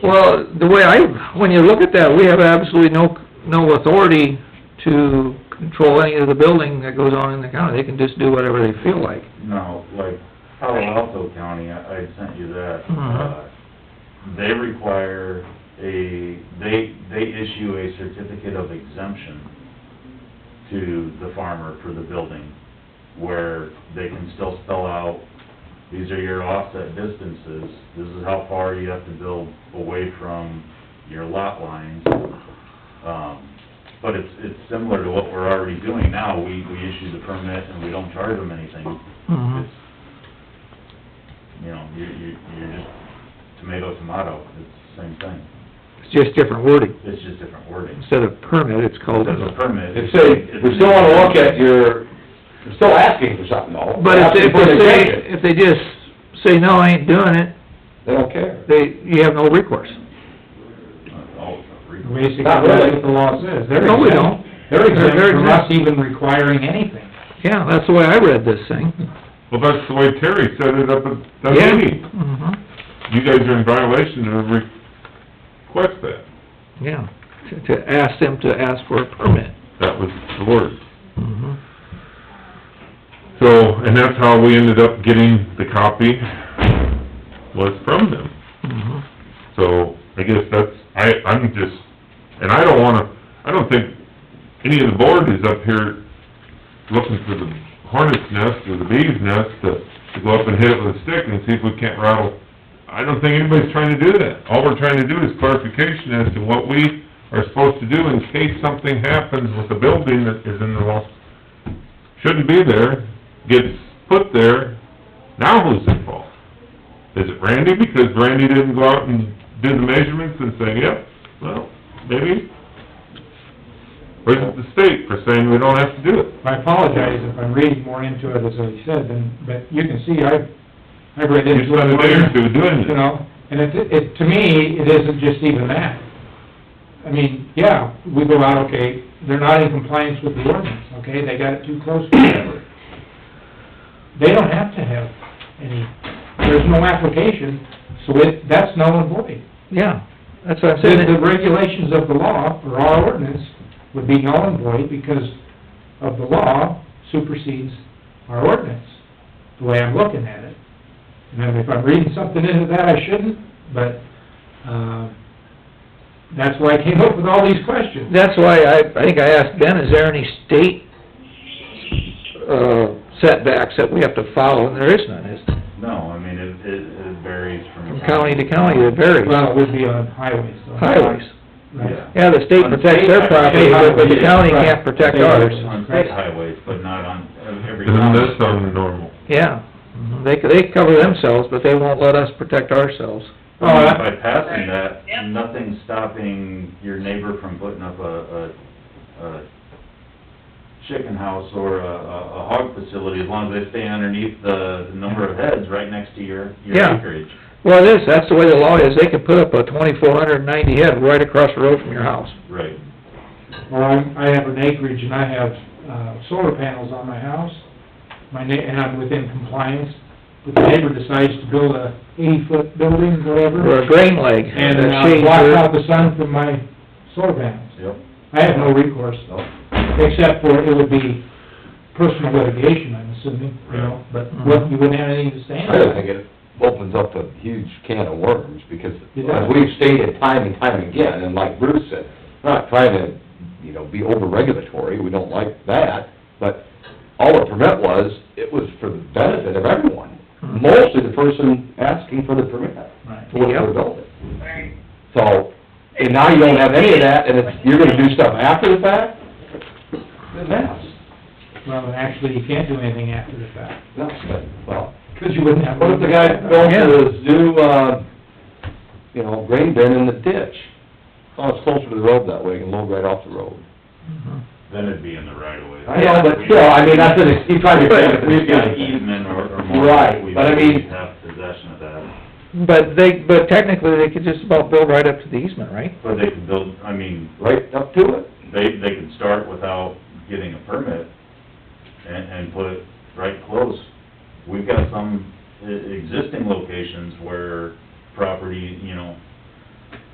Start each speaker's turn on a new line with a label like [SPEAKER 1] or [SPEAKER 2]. [SPEAKER 1] Well, the way I, when you look at that, we have absolutely no, no authority to control any of the building that goes on in the county. They can just do whatever they feel like.
[SPEAKER 2] No, like Palo Alto County, I, I sent you that,
[SPEAKER 1] Mhm.
[SPEAKER 2] uh, they require a, they, they issue a certificate of exemption to the farmer for the building, where they can still spell out, these are your offset distances, this is how far you have to build away from your lot lines. Um, but it's, it's similar to what we're already doing now, we, we issue the permit and we don't charge them anything.
[SPEAKER 1] Mhm.
[SPEAKER 2] It's, You know, you, you, you're just tomato, tomato, it's the same thing.
[SPEAKER 1] It's just different wording.
[SPEAKER 2] It's just different wording.
[SPEAKER 1] Instead of permit, it's called...
[SPEAKER 2] Instead of a permit.
[SPEAKER 3] It's a, we still wanna look at your, we're still asking for something though.
[SPEAKER 1] But if they, if
[SPEAKER 3] Asking for an
[SPEAKER 1] they say,
[SPEAKER 3] exemption.
[SPEAKER 1] if they just say, no, I ain't doing it,
[SPEAKER 3] They don't care.
[SPEAKER 1] they, you have no recourse.
[SPEAKER 2] Oh, re-
[SPEAKER 4] Basically,
[SPEAKER 3] Not
[SPEAKER 4] that's
[SPEAKER 3] really.
[SPEAKER 4] what the law says. They're
[SPEAKER 1] No, we
[SPEAKER 4] exempt-
[SPEAKER 1] don't.
[SPEAKER 4] They're exempt
[SPEAKER 1] They're
[SPEAKER 4] from
[SPEAKER 1] exempt.
[SPEAKER 4] us even requiring anything.
[SPEAKER 1] Yeah, that's the way I read this thing.
[SPEAKER 5] Well, that's the way Terry set it up at that
[SPEAKER 1] Yeah.
[SPEAKER 5] meeting.
[SPEAKER 1] Mhm.
[SPEAKER 5] You guys are in violation of request that.
[SPEAKER 1] Yeah, to, to ask them to ask for a permit.
[SPEAKER 5] That was the word.
[SPEAKER 1] Mhm.
[SPEAKER 5] So, and that's how we ended up getting the copy was from them.
[SPEAKER 1] Mhm.
[SPEAKER 5] So, I guess that's, I, I'm just, and I don't wanna, I don't think any of the board is up here looking for the hornet's nest or the bee's nest to, to go up and hit it with a stick and see if we can't rattle. I don't think anybody's trying to do that. All we're trying to do is clarification as to what we are supposed to do in case something happens with a building that is in the law. Shouldn't be there, gets put there, now who's at fault? Is it Randy? Because Randy didn't go out and do the measurements and say, yep, well, maybe. Or is it the state for saying we don't have to do it?
[SPEAKER 4] I apologize if I'm reading more into it, as I said, and, but you can see, I've, I've read into it.
[SPEAKER 5] You spent a day or two doing
[SPEAKER 4] You
[SPEAKER 5] it.
[SPEAKER 4] know, and it, it, to me, it isn't just even that. I mean, yeah, we go out, okay, they're not in compliance with the ordinance, okay, they got it too close, whatever. They don't have to have any, there's no application, so it, that's null and void.
[SPEAKER 1] Yeah, that's what I'm
[SPEAKER 4] The, the
[SPEAKER 1] saying.
[SPEAKER 4] regulations of the law, or our ordinance, would be null and void because of the law supersedes our ordinance, the way I'm looking at it. And then if I'm reading something into that, I shouldn't, but, um, that's why I came up with all these questions.
[SPEAKER 1] That's why I, I think I asked Ben, is there any state, uh, setbacks that we have to follow? And there is none, is there?
[SPEAKER 2] No, I mean, it, it it varies from.
[SPEAKER 1] From county to county, it varies.
[SPEAKER 4] Well, it would be on highways, though.
[SPEAKER 1] Highways.
[SPEAKER 4] Right.
[SPEAKER 1] Yeah,
[SPEAKER 2] Yeah.
[SPEAKER 1] the state protects their property, but but the county can't protect ours.
[SPEAKER 2] On state highways, but not on every
[SPEAKER 5] Isn't
[SPEAKER 2] county.
[SPEAKER 5] that sounding normal?
[SPEAKER 1] Yeah,
[SPEAKER 4] Mm-hmm.
[SPEAKER 1] Mhm. they, they cover themselves, but they won't let us protect ourselves.
[SPEAKER 2] I mean,
[SPEAKER 4] Oh,
[SPEAKER 2] By passing that,
[SPEAKER 6] Yep.
[SPEAKER 2] nothing's stopping your neighbor from putting up a, a, a chicken house or a, a a hog facility, as long as they stay underneath the number of heads right next to your, your
[SPEAKER 1] Yeah.
[SPEAKER 2] acreage.
[SPEAKER 1] Well, it is, that's the way the law is, they can put up a twenty-four hundred and ninety head right across the road from your house.
[SPEAKER 2] Right.
[SPEAKER 4] Well, I'm, I have an acreage and I have, uh, solar panels on my house, my na, and I'm within compliance. But the neighbor decides to build a eighty-foot building,
[SPEAKER 1] Or a
[SPEAKER 4] whatever,
[SPEAKER 1] grain leg.
[SPEAKER 4] and,
[SPEAKER 1] that
[SPEAKER 4] uh,
[SPEAKER 1] shades
[SPEAKER 4] block
[SPEAKER 1] your-
[SPEAKER 4] out the sun from my solar panels.
[SPEAKER 2] Yep.
[SPEAKER 4] I have no recourse,
[SPEAKER 2] So,
[SPEAKER 4] except for it would be personal litigation, I'm assuming, you know, but
[SPEAKER 1] Mm-hmm.
[SPEAKER 4] what, you wouldn't have anything to stand
[SPEAKER 3] I don't think
[SPEAKER 4] on.
[SPEAKER 3] it opens up a huge can of worms, because
[SPEAKER 4] It does.
[SPEAKER 3] as we've stated time and time again, and like Bruce said, we're not trying to, you know, be over-regulatory, we don't like that, but all the permit was, it was for the benefit of everyone, mostly the person asking for the permit,
[SPEAKER 4] Right.
[SPEAKER 3] for what they're building.
[SPEAKER 6] Right.
[SPEAKER 3] So, and now you don't have any of that, and it's, you're gonna do stuff after the fact? Then that's,
[SPEAKER 4] Well, and actually, you can't do anything after the fact.
[SPEAKER 3] that's good, well.
[SPEAKER 4] Because you wouldn't have.
[SPEAKER 3] What if the guy built his new, uh, you know, grain bin in the ditch? Oh, it's closer to the road that way, you can load right off the road.
[SPEAKER 1] Mm-hmm.
[SPEAKER 2] Then it'd be in the right of way.
[SPEAKER 3] I know, but still, I mean, that's an, he's trying
[SPEAKER 2] If
[SPEAKER 3] to...
[SPEAKER 2] We've got an easement or or more.
[SPEAKER 3] Right,
[SPEAKER 2] we-
[SPEAKER 3] but I mean-
[SPEAKER 2] We have possession of that,
[SPEAKER 1] But they, but technically, they could just about build right up to the easement, right?
[SPEAKER 2] but they could build, I mean,
[SPEAKER 3] Right up to it.
[SPEAKER 2] they, they could start without getting a permit and, and put it right close. We've got some e- existing locations where property, you know,